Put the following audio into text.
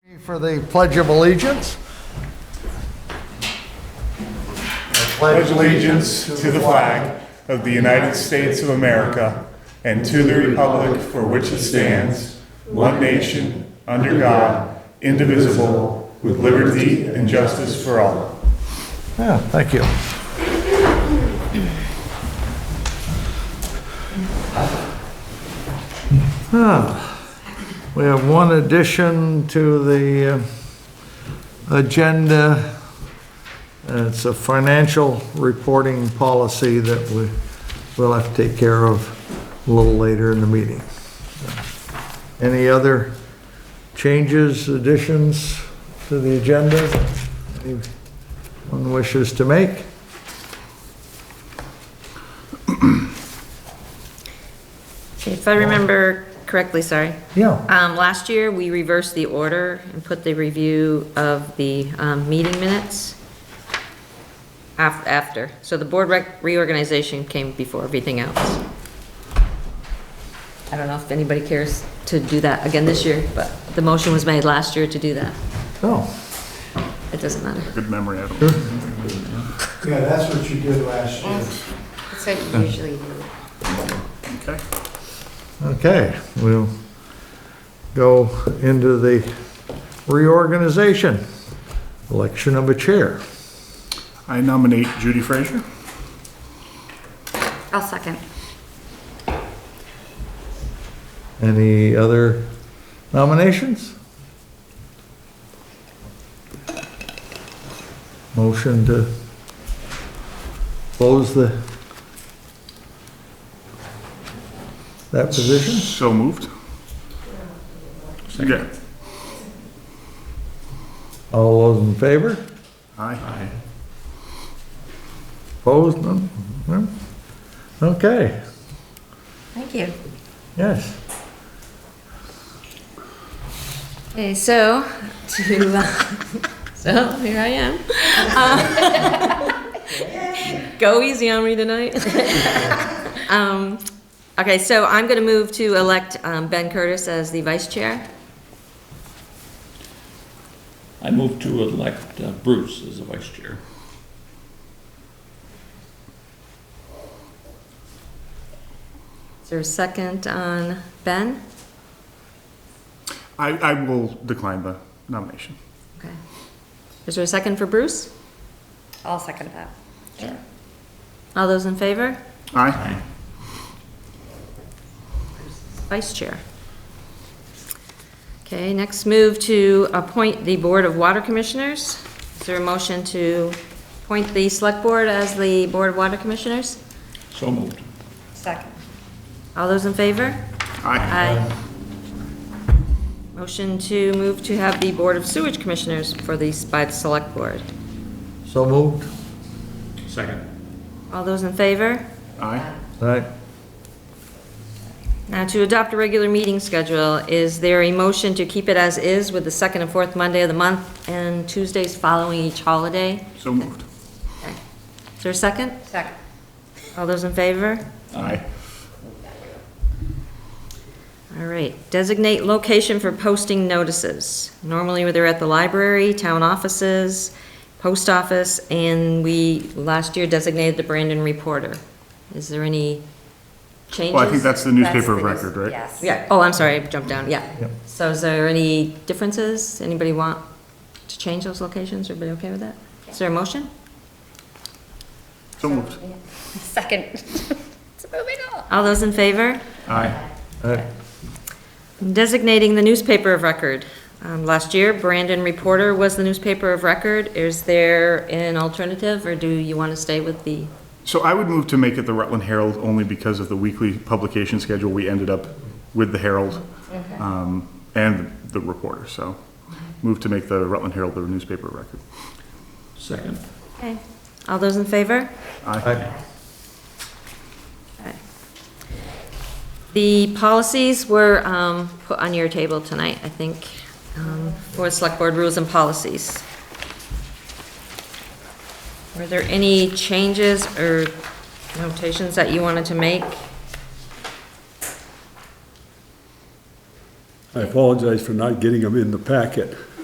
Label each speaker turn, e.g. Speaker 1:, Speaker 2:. Speaker 1: for the Pledge of Allegiance.
Speaker 2: pledge allegiance to the flag of the United States of America and to the republic for which it stands, one nation, under God, indivisible, with liberty and justice for all.
Speaker 1: Yeah, thank you. Ah, We have one addition to the uh, agenda. Uh, It's a financial reporting policy that we, we'll have to take care of a little later in the meeting. Any other changes, additions to the agenda? Anyone wishes to make?
Speaker 3: If I remember correctly, sorry,
Speaker 1: Yeah.
Speaker 3: um, last year, we reversed the order and put the review of the, um, meeting minutes af- after, so the board rec- reorganization came before everything else. I don't know if anybody cares to do that again this year, but the motion was made last year to do that.
Speaker 1: Oh,
Speaker 3: It doesn't matter.
Speaker 2: Good memory, Adam.
Speaker 4: Yeah, that's what you did last year.
Speaker 5: That's what you usually do.
Speaker 2: Okay.
Speaker 1: okay, we'll go into the reorganization, election of a chair.
Speaker 2: I nominate Judy Frazier.
Speaker 5: I'll second.
Speaker 1: Any other nominations? Motion to close the, that position?
Speaker 2: So moved. Second.
Speaker 1: All those in favor?
Speaker 2: Aye.
Speaker 1: Opposed? None? None? Okay,
Speaker 5: Thank you.
Speaker 1: yes.
Speaker 3: Okay, so, to, uh, so, here I am. Uh, Go easy on me tonight. Um, Okay, so I'm going to move to elect um, Ben Curtis as the vice chair.
Speaker 6: I move to elect uh, Bruce as the vice chair.
Speaker 3: Is there a second on Ben?
Speaker 2: I, I will decline the nomination.
Speaker 3: Okay. Is there a second for Bruce?
Speaker 5: I'll second that.
Speaker 3: All those in favor?
Speaker 2: Aye.
Speaker 3: Vice chair. Okay, next move to appoint the Board of Water Commissioners. Is there a motion to appoint the Select Board as the Board of Water Commissioners?
Speaker 6: So moved.
Speaker 5: Second.
Speaker 3: All those in favor?
Speaker 2: Aye.
Speaker 3: Aye. Motion to move to have the Board of Sewage Commissioners for the by the Select Board.
Speaker 1: So moved?
Speaker 6: Second.
Speaker 3: All those in favor?
Speaker 2: Aye.
Speaker 1: All right,
Speaker 3: Now, to adopt a regular meeting schedule, is there a motion to keep it as is with the second and fourth Monday of the month and Tuesdays following each holiday?
Speaker 2: So moved.
Speaker 3: Is there a second?
Speaker 5: Second.
Speaker 3: All those in favor?
Speaker 2: Aye.
Speaker 3: All right. Designate location for posting notices. Normally, they're at the library, town offices, post office, and we, last year, designated the Brandon Reporter. Is there any changes?
Speaker 2: Well, I think that's the
Speaker 5: That's
Speaker 2: newspaper of
Speaker 5: the news-
Speaker 2: record, right?
Speaker 5: Yes.
Speaker 3: Yeah, oh, I'm sorry, I jumped down, yeah.
Speaker 1: Yep.
Speaker 3: So is there any differences? Anybody want to change those locations? Everybody okay with that? Is there a motion?
Speaker 2: So moved.
Speaker 5: Second. So moving on.
Speaker 3: All those in favor?
Speaker 2: Aye.
Speaker 1: all right.
Speaker 3: Designating the newspaper of record. Um, Last year, Brandon Reporter was the newspaper of record. Is there an alternative, or do you want to stay with the?
Speaker 2: So I would move to make it the Rutland Herald only because of the weekly publication schedule. We ended up with the Herald um, and the Reporter, so move to make the Rutland Herald the newspaper of record.
Speaker 6: Second.
Speaker 3: Okay. All those in favor?
Speaker 2: Aye.
Speaker 3: The policies were um, put on your table tonight, I think, um, for Select Board rules and policies. Were there any changes or notations that you wanted to make?
Speaker 7: I apologize for not getting them in the packet.